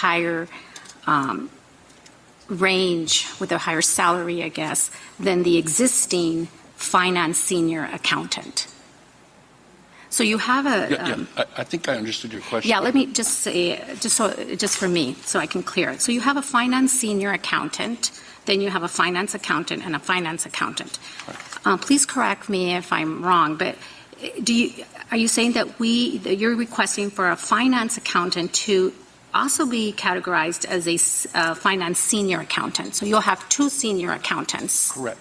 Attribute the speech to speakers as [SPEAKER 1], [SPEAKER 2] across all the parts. [SPEAKER 1] higher um, range, with a higher salary, I guess, than the existing finance senior accountant. So you have
[SPEAKER 2] Yeah,
[SPEAKER 1] a,
[SPEAKER 2] yeah,
[SPEAKER 1] um,
[SPEAKER 2] I, I think I understood your question.
[SPEAKER 1] yeah, let me just say, just so, just for me, so I can clear it. So you have a finance senior accountant, then you have a finance accountant and a finance accountant. Uh, Please correct me if I'm wrong, but eh, do you, are you saying that we, that you're requesting for a finance accountant to also be categorized as a s- uh, finance senior accountant? So you'll have two senior accountants,
[SPEAKER 2] Correct.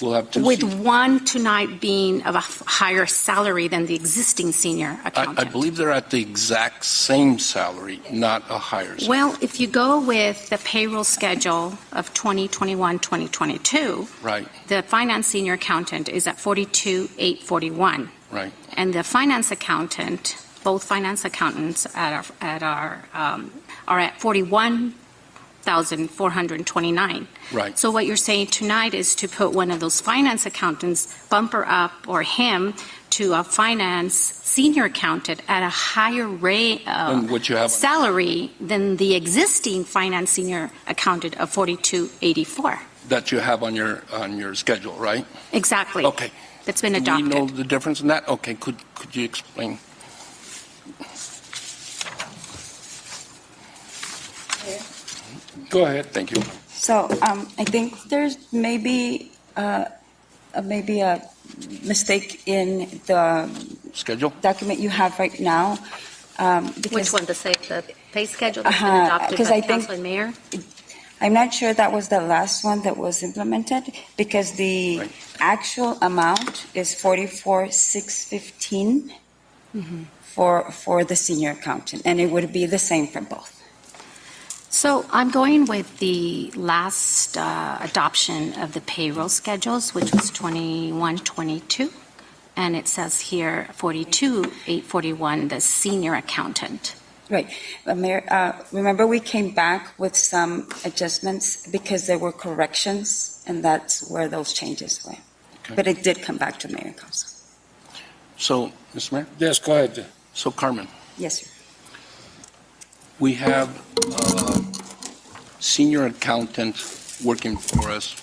[SPEAKER 2] We'll have two.
[SPEAKER 1] with
[SPEAKER 2] seats.
[SPEAKER 1] one tonight being of a f- higher salary than the existing senior
[SPEAKER 2] I,
[SPEAKER 1] accountant?
[SPEAKER 2] I believe they're at the exact same salary, not a higher salary.
[SPEAKER 1] Well, if you go with the payroll schedule of 2021, 2022,
[SPEAKER 2] Right,
[SPEAKER 1] the finance senior accountant is at 42,841.
[SPEAKER 2] right.
[SPEAKER 1] And the finance accountant, both finance accountants at our, at our, um, are at 41,429.
[SPEAKER 2] Right.
[SPEAKER 1] So what you're saying tonight is to put one of those finance accountants, bumper up or him, to a finance senior accountant at a higher rate,
[SPEAKER 2] And what you have on-
[SPEAKER 1] salary than the existing finance senior accountant of 4284.
[SPEAKER 2] That you have on your, on your schedule, right?
[SPEAKER 1] Exactly.
[SPEAKER 2] Okay.
[SPEAKER 1] That's been
[SPEAKER 2] Do we know
[SPEAKER 1] adopted.
[SPEAKER 2] the difference in that? Okay, could, could you explain? Go ahead, thank you.
[SPEAKER 3] So um, I think there's maybe, uh, uh, maybe a mistake in the
[SPEAKER 2] Schedule?
[SPEAKER 3] document you have right now. um,
[SPEAKER 1] Which
[SPEAKER 3] because
[SPEAKER 1] one, the say, the pay schedule that's been
[SPEAKER 3] Uh-huh,
[SPEAKER 1] adopted
[SPEAKER 3] 'cause
[SPEAKER 1] by
[SPEAKER 3] I
[SPEAKER 1] the
[SPEAKER 3] think-
[SPEAKER 1] council and mayor?
[SPEAKER 3] I'm not sure that was the last one that was implemented because the
[SPEAKER 2] Right.
[SPEAKER 3] actual amount is 44,615
[SPEAKER 1] Mm-hmm.
[SPEAKER 3] for, for the senior accountant, and it would be the same for both.
[SPEAKER 1] So I'm going with the last uh, adoption of the payroll schedules, which was 21, 22. And it says here 42, 841, the senior accountant.
[SPEAKER 3] Uh, Mayor, uh, remember we came back with some adjustments because there were corrections, and that's where those changes went.
[SPEAKER 2] Okay.
[SPEAKER 3] But it did come back to mayor and council.
[SPEAKER 2] So, Mr. Mayor,
[SPEAKER 4] Yes, go ahead.
[SPEAKER 2] so Carmen,
[SPEAKER 3] Yes, sir.
[SPEAKER 2] we have uh senior accountant working for us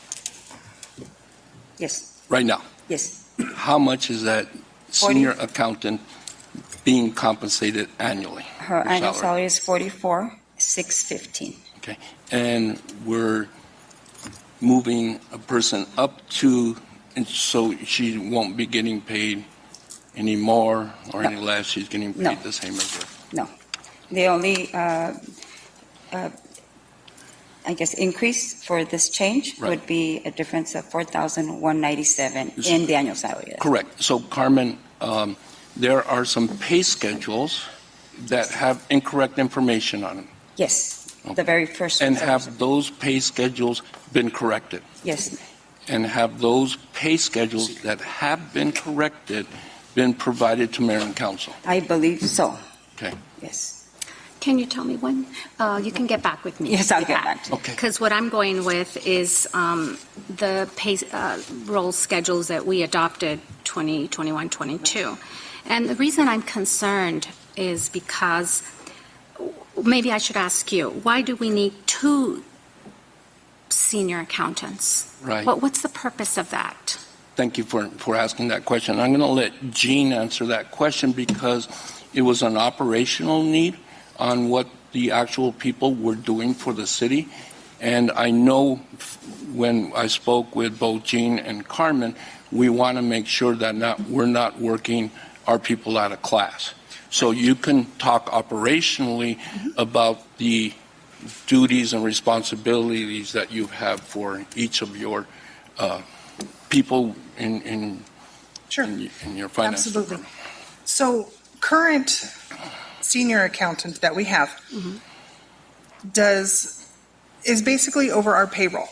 [SPEAKER 3] Yes,
[SPEAKER 2] right now.
[SPEAKER 3] yes.
[SPEAKER 2] How much is that senior accountant being compensated annually?
[SPEAKER 3] Her
[SPEAKER 2] Her
[SPEAKER 3] annual
[SPEAKER 2] salary.
[SPEAKER 3] salary is 44,615.
[SPEAKER 2] And we're moving a person up to, and so she won't be getting paid any more or any less, she's getting
[SPEAKER 3] No.
[SPEAKER 2] paid the same as her.
[SPEAKER 3] The only, uh, uh, I guess, increase for this change
[SPEAKER 2] Right.
[SPEAKER 3] would be a difference of 4,197
[SPEAKER 2] Is-
[SPEAKER 3] in the annual salary.
[SPEAKER 2] Correct. So Carmen, um, there are some pay schedules that have incorrect information on them.
[SPEAKER 3] Yes, the very first.
[SPEAKER 2] And have those pay schedules been corrected?
[SPEAKER 3] Yes,
[SPEAKER 2] And have those pay schedules that have been corrected been provided to mayor and council?
[SPEAKER 3] I believe so.
[SPEAKER 2] Okay.
[SPEAKER 3] Yes,
[SPEAKER 1] Can you tell me when? Uh, You can get back with me.
[SPEAKER 3] Yes, I'll
[SPEAKER 1] with
[SPEAKER 3] get
[SPEAKER 1] that.
[SPEAKER 3] back to
[SPEAKER 2] Okay.
[SPEAKER 1] Because what I'm going with is um, the pay, uh, roll schedules that we adopted 20, 21, 22. And the reason I'm concerned is because, maybe I should ask you, why do we need two senior accountants?
[SPEAKER 2] Right.
[SPEAKER 1] What, what's the purpose of that?
[SPEAKER 2] Thank you for, for asking that question. I'm going to let Gene answer that question because it was an operational need on what the actual people were doing for the city. And I know f- when I spoke with both Gene and Carmen, we want to make sure that not, we're not working our people out of class. So you can talk operationally about the duties and responsibilities that you have for each of your uh, people in, in,
[SPEAKER 5] Sure,
[SPEAKER 2] in y- in your finance.
[SPEAKER 5] absolutely. So current senior accountant that we have does, is basically over our payroll.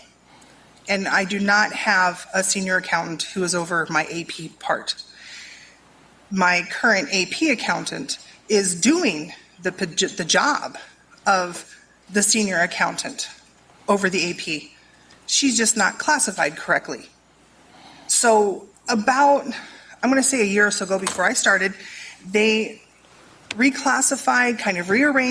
[SPEAKER 5] And I do not have a senior accountant who is over my AP part. My current AP accountant is doing the, poj- the job of the senior accountant over the AP. She's just not classified correctly. So about, I'm going to say a year or so ago before I started, they reclassified, kind of rearranged